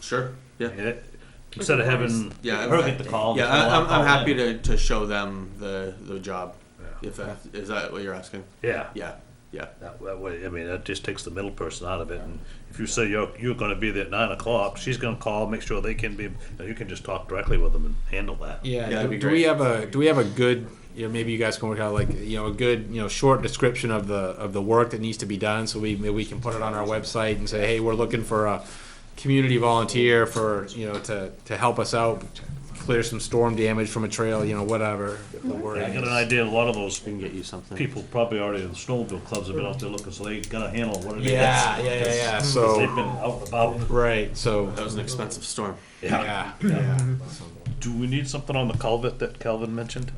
Sure. Yeah. It- Instead of having Yeah, her get the call. Yeah, just have I- her I'm, I'm call happy in. to, to show them the the job. Yeah. If that is that what you're asking? Yeah, Yeah, yeah, that, that way, I mean, that just takes the middle person out of it, and if you say you're, you're gonna be there at nine o'clock, she's gonna call, make sure they can be, you can just talk directly with them and handle that. Yeah. that'd do, be do great. we have a do we have a good you know maybe you guys can work out like you know a good you know short description of the of the work that needs to be done so we maybe we can put it on our website and say hey we're looking for a community volunteer for you know to to help us out clear some storm damage from a trail you know whatever the word Mm-hmm. I got an is. idea, a lot of those we can get you something. people probably already, the snowmobile clubs have been out there looking, so they got a handle on what it is. yeah yeah yeah yeah Because They've so been out and about. right so That was an expensive storm. yeah yeah Do we need something on the culvert that Calvin mentioned?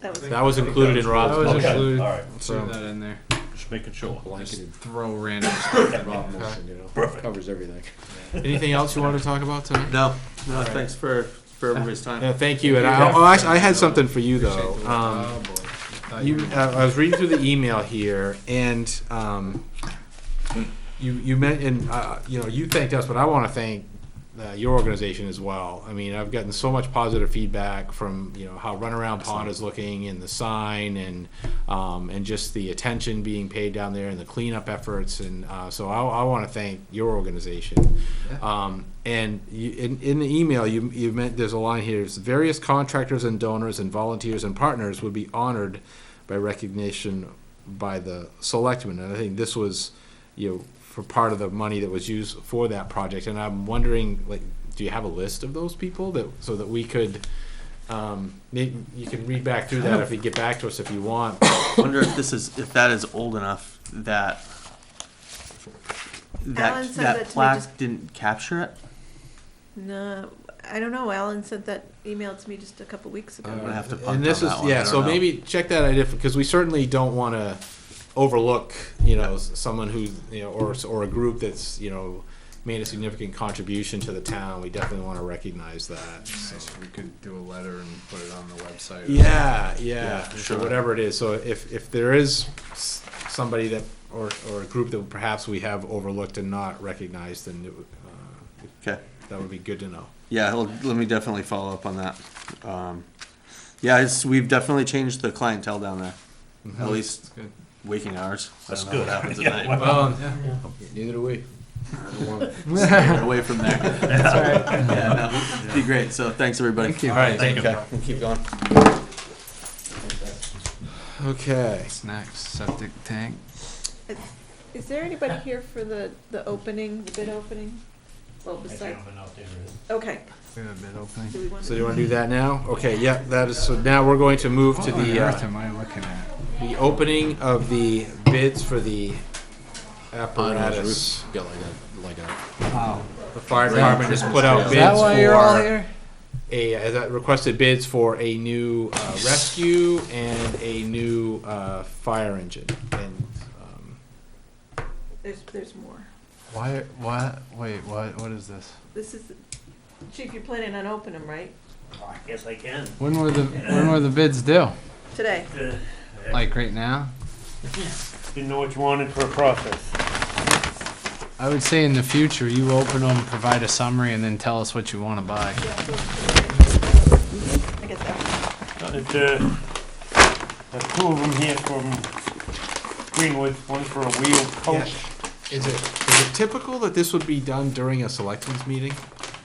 That was that was included in Rob's That was motion. Okay, included. all right. Throw so that in there. Just making sure. Just throw random stuff in Rob motion, you know. Perfect. Covers everything. anything else you wanted to talk about tonight? No, no. Thanks for for everybody's time. Yeah, thank you. And I, oh, actually, I had something for you though. Um, Oh, boy. I thought you, were- uh, I was reading through the email here, and um, you you meant and uh, you know you thanked us, but I want to thank uh, your organization as well. I mean, I've gotten so much positive feedback from you know how Runaround Pond is looking, and the sign, and um, and just the attention being paid down there, and the cleanup efforts, and uh, so I, I want to thank your organization. Um, and you, in, in the email, you you meant there's a line here: is various contractors and donors and volunteers and partners would be honored by recognition by the selectmen, and I think this was, you know, for part of the money that was used for that project, and I'm wondering, like, do you have a list of those people that, so that we could, um, maybe you can read back through that if you get back to us if you want. wonder if this is if that is old enough that Alan that said that to that me plaque just- didn't capture it. no. I don't know. Alan sent that email to me just a couple weeks ago. I'm Oh, gonna have to punt And this on is, that one. I yeah, don't so know. maybe check that idea, because we certainly don't wanna overlook, you know, s- someone who's, you know, or, s- or a group that's, you know, made a significant contribution to the town, we definitely wanna recognize that, so. We could do a letter and put it on the website. Yeah, yeah, for for sure. whatever it is. So if if there is s- somebody that or or a group that perhaps we have overlooked and not recognized, then it, would, uh, Okay. that would be good to know. Yeah, well, let me definitely follow up on that. Um, yeah, it's, we've definitely changed the clientele down there. Mm-hmm. At least good. waking hours. I That's don't know good. What happens at Yeah, night? well, Um, Neither do we. Get away from there. yeah, no, it'd be great. So thanks everybody. Thank you. All right, Thank you. Okay, we'll keep going. okay. Snacks, septic tank. Is there anybody here for the, the opening, the bid opening? Well, besides, okay. We have a bid Do opening. we want So you to? want to do that now? Okay. Yeah. That is. So now we're going to move to Oh, What on the earth uh, am I looking at? the opening of the bids for the apparatus. Got like a, like a. Oh. The fire department has put out Is bids that why for you're all here? a uh, that requested bids for a new uh, rescue and a new uh, fire engine. And um, There's, there's more. Why, why, wait, what, what is this? This is, Chief, you're planning on opening them, right? Yes, I can. When were the, when were the bids due? Today? Like right now? Didn't know what you wanted for a process. I would say in the future, you open them, provide a summary, and then tell us what you want to buy. I guess that. It, uh, there's two of them here from Greenwood, one for a wheel Oh. coach. is it is it typical that this would be done during a selectmen's meeting?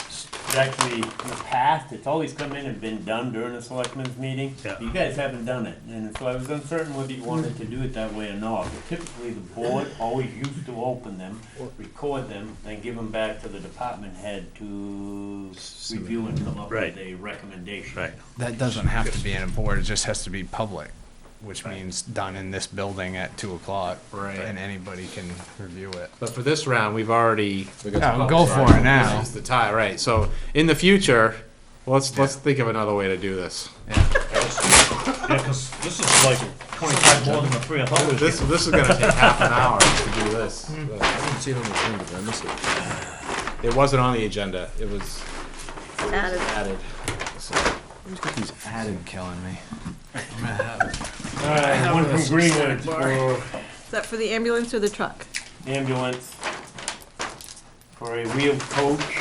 It's Actually, in the past, it's always come in and been done during a selectmen's meeting. Yeah. You guys haven't done it, and so I was uncertain whether you wanted to do it that way or not. But Typically, the board always used to open them, record them, then give them back to the department head to review and come up Right. with a recommendation. Right. That doesn't have to be in a board, it just has to be public, which means done in this building at two o'clock. Right. And anybody can review it. But for this round, we've already We got Yeah, go for it now. this is the tie, right? So in the future, let's let's think of another way to do this. Yeah, 'cause this is like twenty-five more than the three I thought it This this is going to take half an hour to do this. I didn't see it on the agenda, but I missed it. It wasn't on the agenda. It was Added. added. So, He's added killing me. All right, one from Greenwood for Is that for the ambulance or the truck? ambulance, for a wheel coach,